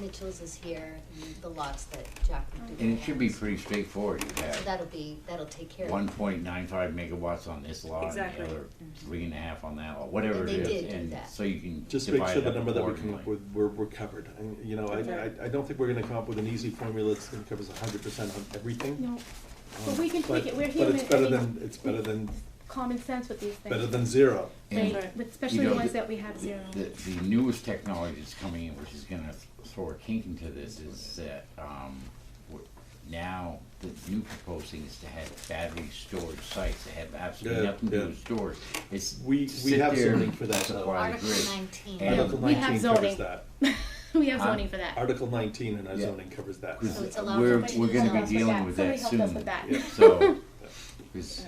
Mitchell's is here, and the lots that Jack would do. And it should be pretty straightforward, you So have that'll be, that'll take care of it. one point nine five megawatts on this lot and the Exactly. other three and a half on that lot, whatever Mm-hmm. And it they did is, do and that. so you can Just make divide sure it the up number that we come up accordingly. with, we're, we're covered. And, you know, I, I, I don't think we're gonna come up with an easy formula that's gonna cover us hundred percent of everything. No, um, but we can tweak but- it. We're But it's human. better I mean, than, it's better than, common sense with these things. better than zero. And Right, with especially know, the ones the- that we have zero. The, the newest technology that's coming in, which is gonna throw a kink into this, is that, um, w- now, the new proposed thing is to have battery storage sites that have absolutely Yeah, nothing to do yeah. with storage. It's to We- we sit have there zoning and for that, though. supply the Article grid. nineteen. And- Article we have nineteen covers zoning. that. we have Huh? zoning for that. Article nineteen in our Yeah. zoning covers that. So it's allowed We're, for we're budget gonna as be well. dealing with Somebody that helped us soon, with that. Yeah. so, 'cause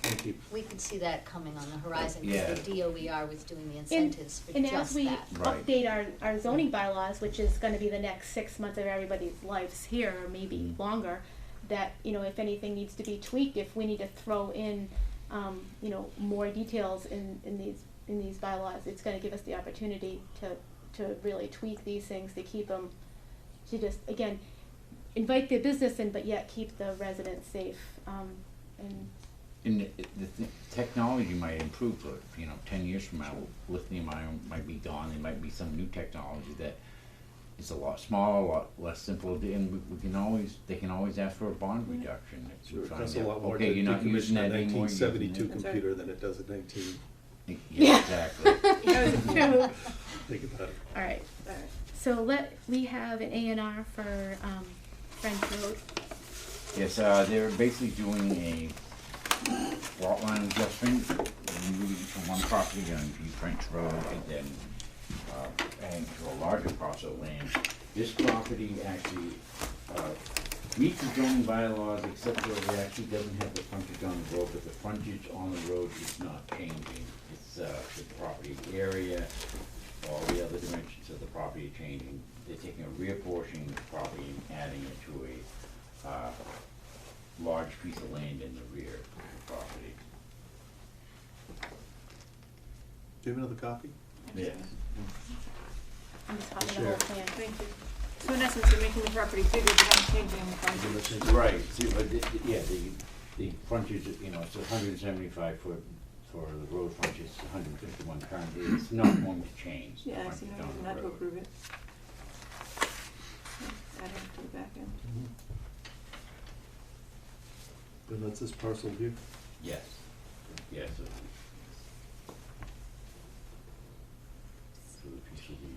Thank you. We could see that coming on the horizon, Yeah. because the DOER was doing the incentives for And as just we that. Right. update our, our zoning bylaws, which is gonna be the next six months of everybody's lives here, or maybe Mm. longer, that, you know, if anything needs to be tweaked, if we need to throw in, um, you know, more details in, in these, in these bylaws, it's gonna give us the opportunity to, to really tweak these things, to keep them, to just, again, invite the business in, but yet keep the residents safe, um, and And the, the th- technology might improve, but, you know, ten years from now, lithium ion might be gone, there might be some new technology that is a lot smaller, a lot less simple, and we, we can always, they can always ask for a bond reduction. if we Sure, it find costs a out, lot more to Okay, you're not decommission using a that anymore. nineteen you're using seventy-two it. That's right. computer than it does a nineteen, Yeah, exactly. That was- think about it. All right, all right. so let, we have an A and R for, um, French Road. Yes, uh, they're basically doing a lot line adjustment, moving from one property on P French Road and then, uh, adding to a larger parcel of land. This property actually, uh, meets the zoning bylaws except for it actually doesn't have the frontage on the road, but the frontage on the road is not changing. It's, uh, the property area, all the other dimensions of the property are changing. They're taking a rear portion of the property and adding it to a, uh, large piece of land in the rear of the property. Do you have another copy? Yes. I'm just talking the Sure. whole plan. Thank you. So in essence, you're making the property bigger, but not changing the Give property. us a- Right, see, but the- the- yeah, the, the frontage, you know, it's hundred and seventy-five foot for the road frontage, it's hundred and fifty-one currently, it's not going to change. the Yeah, I see, frontage no on reason the not to road. approve it. I'd have to go back in. Mm-hmm. And that's this parcel here? Yes, yes. it- So the piece will be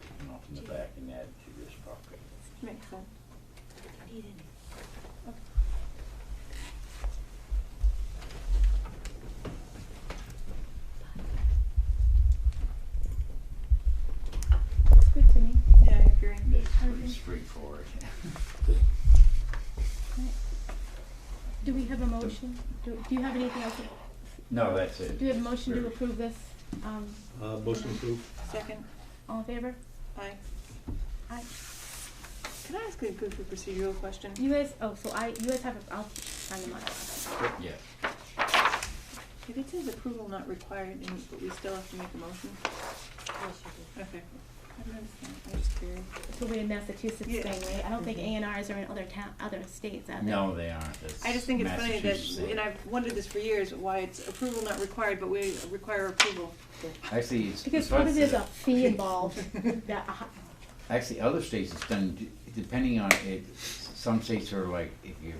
taken off in the back and added to this property. Makes sense. It's good to me. Yeah, I agree. And It's pretty Okay. straightforward. Do we have a motion? Do, do you have anything else? to- No, that's it. Do we have a motion to Very- approve this? Um, Uh, motion approved? Second, all in favor? aye. Aye. Can I ask a good procedural question? You guys, oh, so I, you guys have, a- I'll sign them up. Yes. If it says approval not required, and, but we still have to make a motion? Yes, you do. Okay. I don't understand, I'm just curious. So we're in Massachusetts thing, Yeah. right? I don't think A and Rs are in other town, other states, are they? Mm-hmm. No, they aren't, that's I just think it's funny Massachusetts that, law. and I've wondered this for years, why it's approval not required, but we require approval. Actually, it's. Because it's not- probably there's a fee involved that, uh, Actually, other states it's done, d- depending on it, some states are like, if you're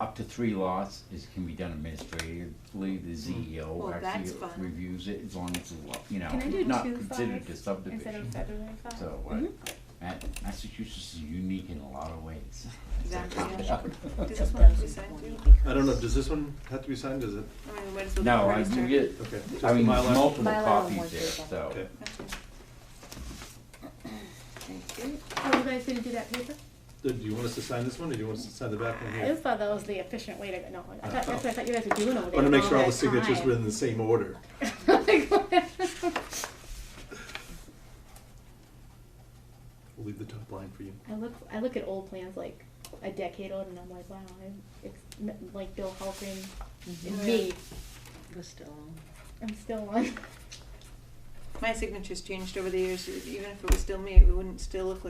up to three lots, it can be done administratively, the Well, CEO that's actually fun. reviews it, as long as it's, lo- you know, Can I do not two considered fives a instead subdivision. of federal five. So, uh, Mhm. Ma- Massachusetts is unique in a lot of ways. Exactly, yeah. Does this one have to be signed too? I don't know, does this one have to be signed, does it? I mean, we might as well. No, I, register. you get, Okay. just I the mean, Mylar? multiple Mylar on one copies there, paper. so. Okay. That's good. Thank you. Oh, you guys didn't do that paper? Do do you want us to sign this one, or do you want us to sign the back one I here? just thought that was the efficient way to go. No, I thought, Oh. that's what I thought you guys were doing over there. I Oh, wanna make sure all the that signatures time. were in the same order. We'll leave the top line for you. I look, I look at old plans like a decade old, and I'm like, wow, I'm, it's m- like Bill Halprin and me. I'm still on. My signature's changed over the years, even if it was still me, it wouldn't still look like